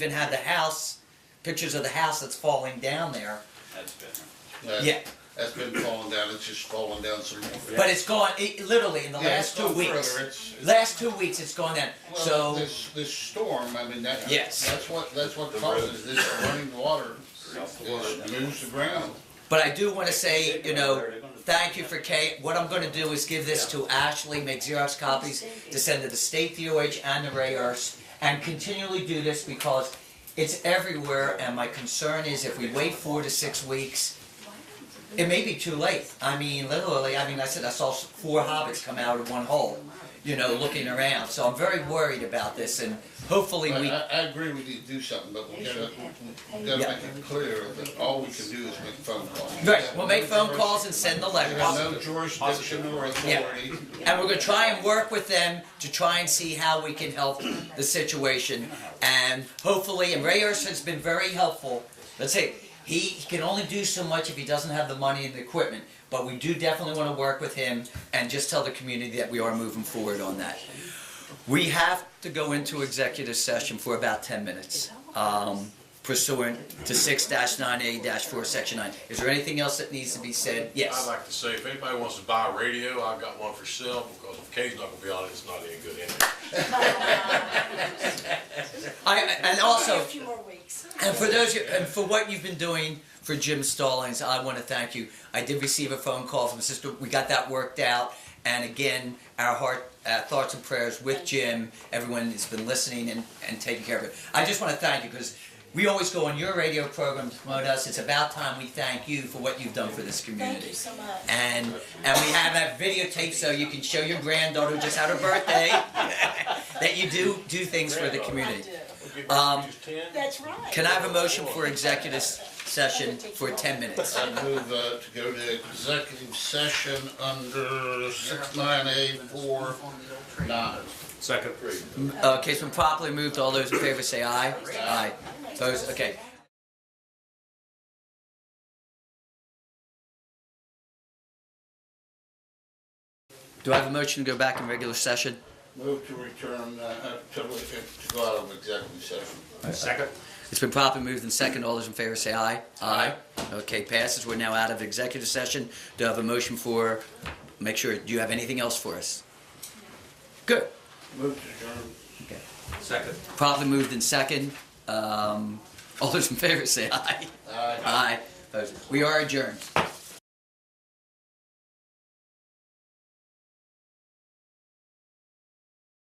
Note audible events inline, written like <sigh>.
even had the house, pictures of the house that's falling down there. That's better. That- Yeah. That's been falling down, it's just falling down some more. But it's gone, it, literally, in the Yeah, last it's two gone weeks. further. It's- it's- Last two weeks, it's gone down, Well, so, This, this storm, I mean, that, Yes. that's what, that's what The causes this running water, Off the water. it moves the ground. but I do wanna say, you know, They're gonna- thank you for Kate. What I'm gonna do is give this to Ashley, make Xerox copies, to send to the state DOH and the Ray Earths, and continually do this because it's everywhere, and my concern is if we wait four to six weeks, it may be too late. I mean, literally, I mean, I said I saw s- four hobbits come out of one hole, you know, looking around, so I'm very worried about this, and hopefully But we, I, I agree we need to do something, but we gotta, we gotta Yeah. make it clear that all we can do is make phone calls. right, we'll make phone calls and send the We letters. have no jurisdiction or authority. And we're gonna try and work with them to try and see how we can help the situation. And hopefully, and Ray Erson has been very helpful. Let's say, he, he can only do so much if he doesn't have the money and the equipment. But we do definitely wanna work with him and just tell the community that we are moving forward on that. We have to go into executive session for about ten minutes. Um, pursuant to six nine A four, section nine. Is there anything else that needs to be said? I'd Yes. like to say, if anybody wants to buy a radio, I've got one for sale, because if Kay's not gonna be on it, it's not any good anyway. I, and also. A few more weeks. And for those, you- and for what you've been doing for Jim Stallings, I want to thank you. I did receive a phone call from sister. We got that worked out, and again, our heart, uh, thoughts and prayers with Jim. Everyone that's been listening and, and taking care of it. I just want to thank you because we always go on your radio program to promote us. It's about time we thank you for what you've done for this community. Thank you so much. And and we have that videotape so you can show your granddaughter who just had her <laughs> birthday <laughs> that you do do things for the I community. do. Okay, Um, just ten? That's right. Can I have a motion for executive s- session for ten minutes? I move uh, to go to executive session under six nine eight four nine. Second. Uh, Okay, it's been properly moved. All those in favor say aye. Aye. Those, okay. Do I have a motion to go back in regular session? Move to return, uh, to, to go out of executive session. Second. It's been properly moved and second. All those in favor say aye. Aye. Okay, passes. We're now out of executive session. Do I have a motion for, make sure, do you have anything else for us? Good. Move to adjourn. Second. Properly moved in second. Um, <laughs> all those in favor say aye. Aye. Aye. Opposed? We are adjourned.